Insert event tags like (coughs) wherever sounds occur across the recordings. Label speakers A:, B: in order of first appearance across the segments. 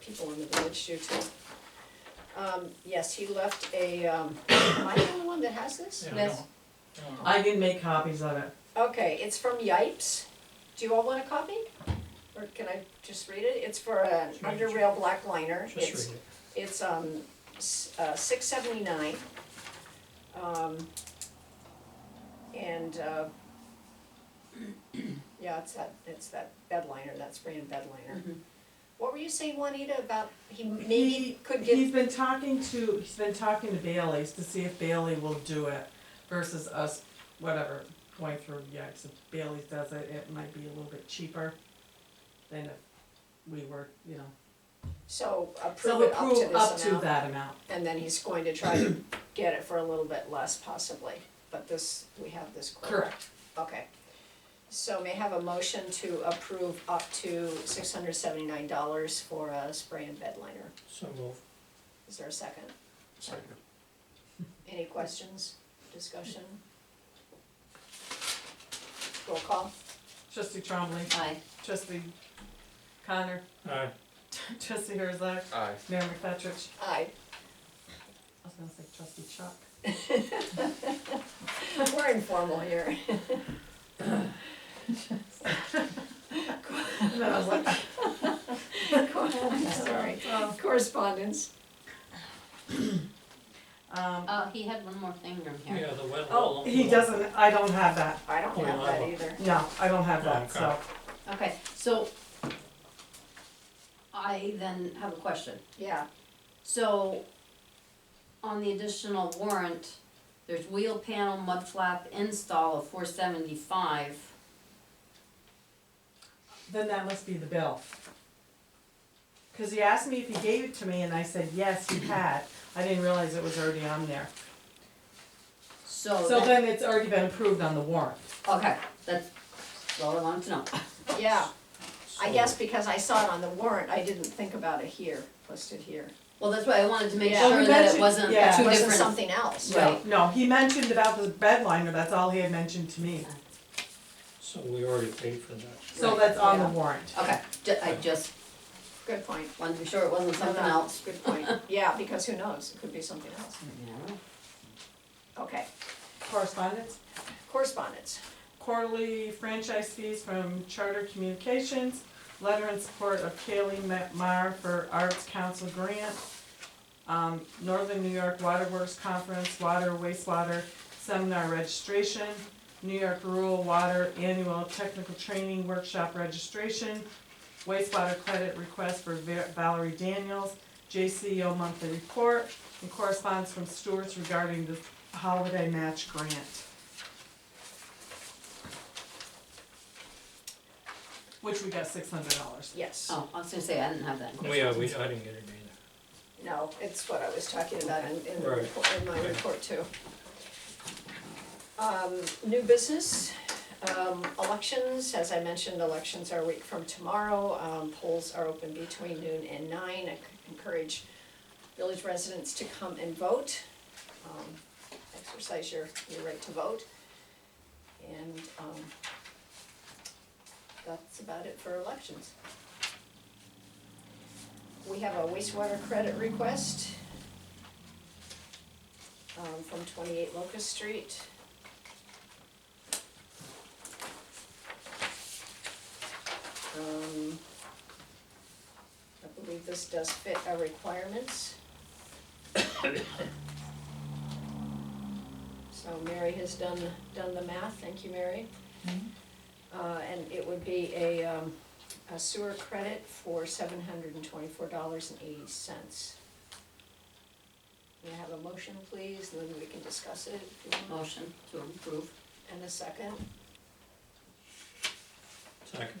A: people in the village do too. Um, yes, he left a, um, am I the only one that has this?
B: Yeah, I
C: Yes.
B: don't- I don't uh, know.
C: I didn't make copies of it.
A: Okay, it's from Yipes. Do you all want a copy? Or can I just read it? It's for an
B: Sure,
A: under
B: sure.
A: rail black liner. It's-
B: Just read it.
A: It's um s- uh six seventy nine. Um and uh (clears throat) yeah, it's that it's that bedliner, that spray and bedliner. What were you saying, Juanita, about he maybe
C: He-
A: could
C: He's
A: get
C: been talking to, he's been talking to Bailey's to see if Bailey will do it versus us, whatever, going through Yikes. If Bailey's does it, it might be a little bit cheaper than if we were, you know.
A: so approve
C: So
A: it up to this
C: approve
A: amount?
C: up to that amount.
A: And then he's going to try to (coughs) get it for a little bit less possibly, but this, we have this quote.
C: Correct.
A: Okay. So may I have a motion to approve up to six hundred seventy-nine dollars for a spray and bed liner.
B: So move.
A: Is there a second?
B: Second.
A: Any questions, discussion? Roll call.
C: Trustee Trombley,
A: Aye.
C: trustee Connor, (laughs)
B: Aye.
C: trustee Herzog,
D: Aye.
C: Mayor McFetrich.
A: Aye. (laughs)
C: I was gonna say trustee Chuck. (laughs)
A: We're informal here.
C: And then I was like,
A: I'm (laughs) sorry.
C: oh.
A: Correspondence.
C: Um,
E: (laughs) Uh, he had one more thing from here.
B: Yeah, the wet
C: oh,
B: wall.
C: he doesn't, I don't have that.
A: I don't have that either.
C: No, I don't have that,
B: Okay.
C: so.
E: Okay, so I then have a question.
A: Yeah,
E: So on the additional warrant, there's wheel panel mud flap install of four seventy-five.
C: Then that must be the bill. Cause he asked me if he gave it to me and I said, yes, he had, I didn't realize it was already on there.
E: So
C: So
E: that,
C: then it's already been approved on the warrant.
E: okay, that's all I wanted to know.
A: yeah. I
B: So-
A: guess because I saw it on the warrant, I didn't think about it here, listed here.
E: Well, that's why I wanted to make
A: Yeah. Well,
E: sure
C: we
E: that
C: mentioned-
E: it wasn't two
C: yeah.
A: It
E: different.
A: wasn't something else,
E: Right.
A: right?
C: No, he mentioned about the bedliner, that's all he had mentioned to me,
B: So we already paid for that.
C: so that's on the
A: Yeah.
C: warrant.
E: Okay, ju- I just
A: Good point.
E: wanted to be sure it wasn't something
A: No, no,
E: else.
A: Good point. Yeah, because who knows? It could be something else.
E: Yeah.
A: Okay,
C: Correspondence,
A: correspondence.
C: quarterly franchise fees from Charter Communications, letter in support of Kaylee Meyer for Arts Council grant, um, Northern New York Waterworks Conference, water wastewater seminar registration, New York Rural Water Annual Technical Training Workshop registration, wastewater credit request for Va- Valerie Daniels, JCO monthly report, and correspondence from Stewart's regarding the holiday match grant. Which we got six hundred dollars.
A: Yes.
E: Oh, I was gonna say, I didn't have that.
B: We, yeah, we, I didn't get it either.
A: No, it's what I was talking about in, in the
B: Right.
A: report, in my
B: Yeah.
A: report too. Um, new business, um, elections, as I mentioned, elections are a week from tomorrow, um, polls are open between noon and nine. I Encourage village residents to come and vote, um, exercise your, your right to vote. And, um, that's about it for elections. We have a wastewater credit request um, from twenty-eight Locust Street. Um, I believe this does fit our requirements. So Mary has done, done the math, thank you, Mary. Uh, and it would be a, um, a sewer credit for seven hundred and twenty-four dollars and eighty cents. May I have a motion, please, and then we can discuss it if you want,
E: Motion to approve.
A: and a second.
B: Second.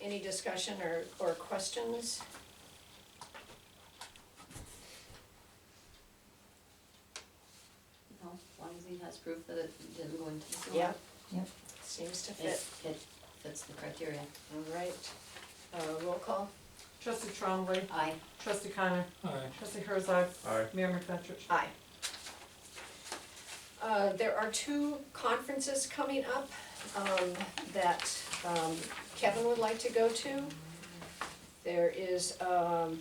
A: Any discussion or, or questions?
E: No, as long as he has proof that it didn't go into the sewer.
A: Yeah. Seems to fit,
E: It, it fits the criteria.
A: all right. Uh, roll call?
C: Trustee Trombley,
E: Aye.
C: trustee Connor,
B: Aye.
C: trustee Herzog,
D: Aye.
C: Mayor McFetrich.
A: Aye. Uh, there are two conferences coming up, um, that, um, Kevin would like to go to. There is, um,